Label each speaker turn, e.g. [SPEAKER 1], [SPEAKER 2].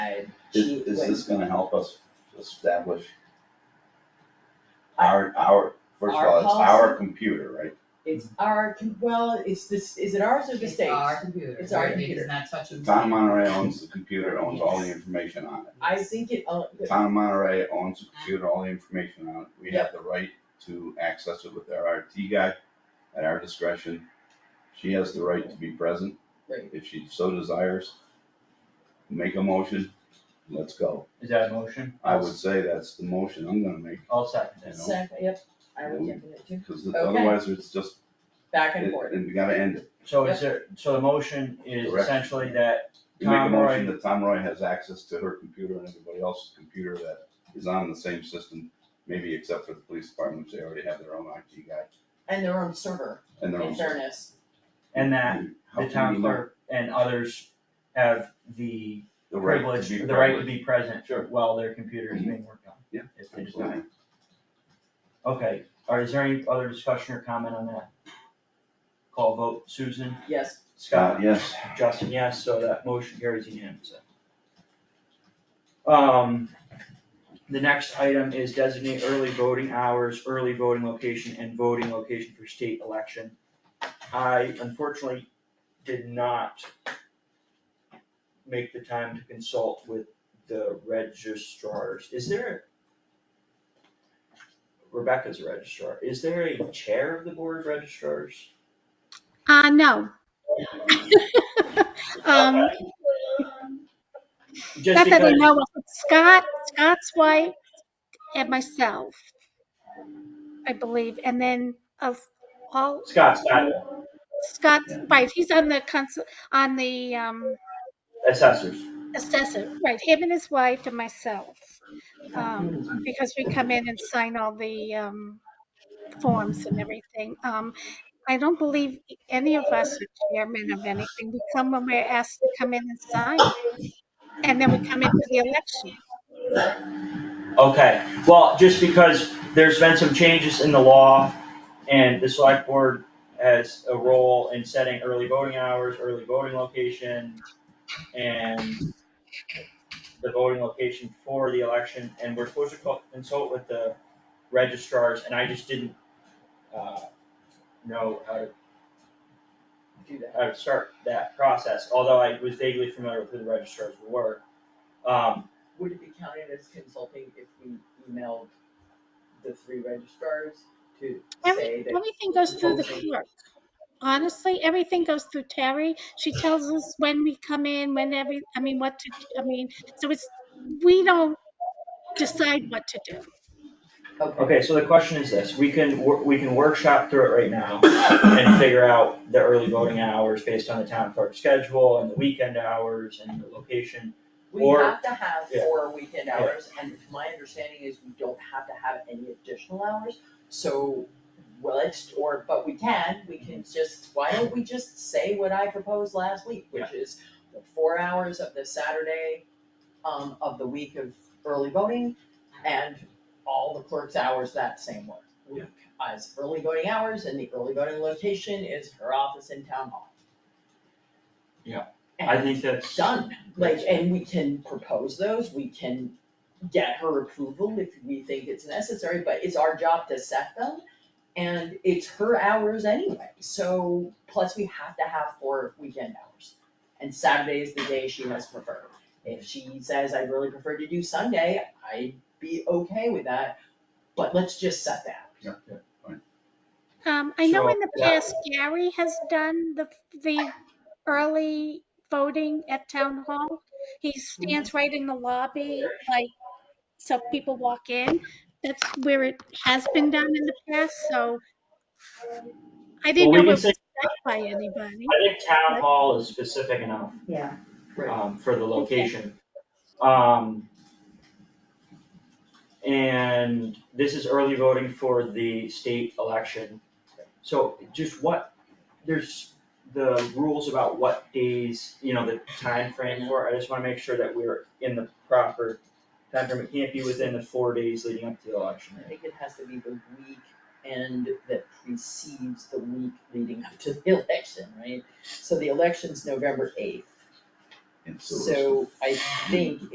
[SPEAKER 1] would, she
[SPEAKER 2] Is, is
[SPEAKER 1] would,
[SPEAKER 2] this gonna help us establish
[SPEAKER 1] I-
[SPEAKER 2] our, our, first of
[SPEAKER 1] Our
[SPEAKER 2] all, it's our
[SPEAKER 1] policy.
[SPEAKER 2] computer, right?
[SPEAKER 1] it's our, com- well, it's this, is it ours or the
[SPEAKER 3] It's
[SPEAKER 1] state's?
[SPEAKER 3] our computer.
[SPEAKER 1] It's our
[SPEAKER 3] right?
[SPEAKER 1] computer.
[SPEAKER 3] It's not touching.
[SPEAKER 2] Town of Monterey owns the computer, owns all the information on it.
[SPEAKER 1] I think it, uh,
[SPEAKER 2] The Town of Monterey owns the computer, all the information on it. We have the right to access it with our IT guy at our discretion. She has the right to be present
[SPEAKER 1] right,
[SPEAKER 2] if she so desires. Make a motion, let's go.
[SPEAKER 4] Is that a motion?
[SPEAKER 2] I would say that's the motion I'm gonna make,
[SPEAKER 4] I'll second it.
[SPEAKER 1] sec- yep, I would jump in it too,
[SPEAKER 2] because
[SPEAKER 1] Okay.
[SPEAKER 2] otherwise it's just,
[SPEAKER 1] back and forth.
[SPEAKER 2] and we gotta end it.
[SPEAKER 4] So is there, so the motion is
[SPEAKER 2] Correct.
[SPEAKER 4] essentially that,
[SPEAKER 2] You make a
[SPEAKER 4] Tom
[SPEAKER 2] motion
[SPEAKER 4] Roy.
[SPEAKER 2] that Tom Roy has access to her computer and everybody else's computer that is on the same system, maybe except for the police department, which they already have their own IT guy
[SPEAKER 1] And their own server,
[SPEAKER 2] and their
[SPEAKER 1] in
[SPEAKER 2] own.
[SPEAKER 1] fairness,
[SPEAKER 4] and that
[SPEAKER 2] How can
[SPEAKER 4] the
[SPEAKER 2] we
[SPEAKER 4] town
[SPEAKER 2] not-
[SPEAKER 4] clerk and others have the
[SPEAKER 2] The right to
[SPEAKER 4] privilege,
[SPEAKER 2] be
[SPEAKER 4] the right to
[SPEAKER 2] privileged.
[SPEAKER 4] be present
[SPEAKER 2] Sure. Mm-hmm.
[SPEAKER 4] while their computer is being worked on.
[SPEAKER 2] Yeah,
[SPEAKER 4] If they desire.
[SPEAKER 2] Absolutely.
[SPEAKER 4] Okay, or is there any other discussion or comment on that? Call vote, Susan,
[SPEAKER 1] yes,
[SPEAKER 2] Scott,
[SPEAKER 4] Scott,
[SPEAKER 2] Uh, yes,
[SPEAKER 4] Justin, yes, so that motion carries unanimously. Um, the next item is designate early voting hours, early voting location, and voting location for state election. I unfortunately did not make the time to consult with the registrars. Is there a Rebecca's a registrar. Is there a chair of the board of registrars?
[SPEAKER 5] Uh, no. Um,
[SPEAKER 4] Just
[SPEAKER 5] not that I
[SPEAKER 4] because,
[SPEAKER 5] know of. Scott, Scott's wife and myself, I believe, and then of all,
[SPEAKER 4] Scott's not
[SPEAKER 5] Scott's wife, he's on the council, on the, um,
[SPEAKER 4] assessors.
[SPEAKER 5] assessor, right, him and his wife and myself. Um, because we come in and sign all the, um, forms and everything. Um, I don't believe any of us are chairman of anything. We come when we're asked to come in and sign. And then we come in for the election.
[SPEAKER 4] Okay, well, just because there's been some changes in the law and the select board has a role in setting early voting hours, early voting location, and the voting location for the election, and we're supposed to co- consult with the registrars, and I just didn't, uh, know how to,
[SPEAKER 1] do that.
[SPEAKER 4] how to start that process, although I was vaguely familiar with who the registrars were. Um,
[SPEAKER 1] Would it be counted as consulting if we emailed the three registrars to say
[SPEAKER 5] Every-
[SPEAKER 1] that?
[SPEAKER 5] Everything goes through the
[SPEAKER 1] Okay.
[SPEAKER 5] clerk. Honestly, everything goes through Terry. She tells us when we come in, when every, I mean, what to, I mean, so it's, we don't decide what to do.
[SPEAKER 4] Okay, so the question is this, we can, wor- we can workshop through it right now and figure out the early voting hours based on the town clerk's schedule and the weekend hours and the location.
[SPEAKER 1] We
[SPEAKER 4] Or-
[SPEAKER 1] have to have
[SPEAKER 4] yeah.
[SPEAKER 1] four weekend hours, and my understanding is we don't have to have any additional hours, so, well, it's, or, but we can, we can just, why don't we just say what I proposed last week, which is the four hours of the Saturday, um, of the week of early voting, and all the clerk's hours that same week. week As early voting hours, and the early voting location is her office in town hall.
[SPEAKER 4] Yeah. I
[SPEAKER 1] And-
[SPEAKER 4] think that's,
[SPEAKER 1] done, like, and we can propose those, we can get her approval if we think it's necessary, but it's our job to set them. And it's her hours anyway, so, plus we have to have four weekend hours. And Saturday is the day she has preferred. If she says, I'd really prefer to do Sunday, I'd be okay with that, but let's just set that.
[SPEAKER 5] Um, I know in
[SPEAKER 4] Sure,
[SPEAKER 5] the
[SPEAKER 4] yeah.
[SPEAKER 5] past Gary has done the, the early voting at town hall. He
[SPEAKER 4] Mm-hmm.
[SPEAKER 5] stands right in the lobby, like, so people walk in. That's where it has been done in the past, so I didn't
[SPEAKER 4] Well, we
[SPEAKER 5] know it
[SPEAKER 4] can
[SPEAKER 5] was
[SPEAKER 4] say-
[SPEAKER 5] done by anybody.
[SPEAKER 4] I think town hall is specific enough,
[SPEAKER 3] Yeah.
[SPEAKER 4] um, for the location. Um, and this is early voting for the state election. So just what, there's the rules about what days, you know, the time frame for, it. I just wanna make sure that we're in the proper time frame. It can't be within the four days leading up to the election.
[SPEAKER 1] I think it has to be the week end that precedes the week leading up to the election, right? So the election's November eighth,
[SPEAKER 2] and so.
[SPEAKER 1] so I think